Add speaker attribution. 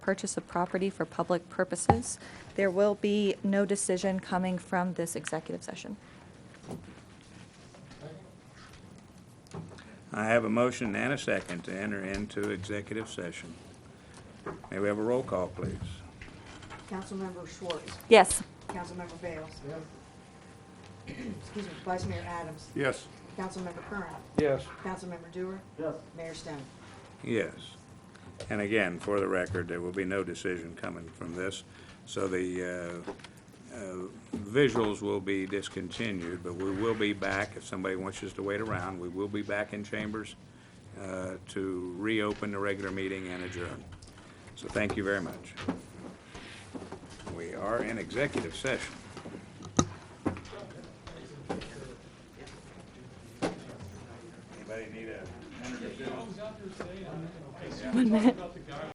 Speaker 1: purchase of property for public purposes. There will be no decision coming from this executive session.
Speaker 2: I have a motion and a second to enter into executive session. May we have a roll call, please?
Speaker 3: Councilmember Schwartz.
Speaker 1: Yes.
Speaker 3: Councilmember Bales. Excuse me, Vice Mayor Adams.
Speaker 2: Yes.
Speaker 3: Councilmember Curran.
Speaker 4: Yes.
Speaker 3: Councilmember Dewar.
Speaker 4: Yes.
Speaker 3: Mayor Stone.
Speaker 2: Yes. And again, for the record, there will be no decision coming from this, so the uh, uh, visuals will be discontinued, but we will be back, if somebody wants us to wait around, we will be back in chambers uh, to reopen the regular meeting and adjourn. So thank you very much. We are in executive session. Anybody need a?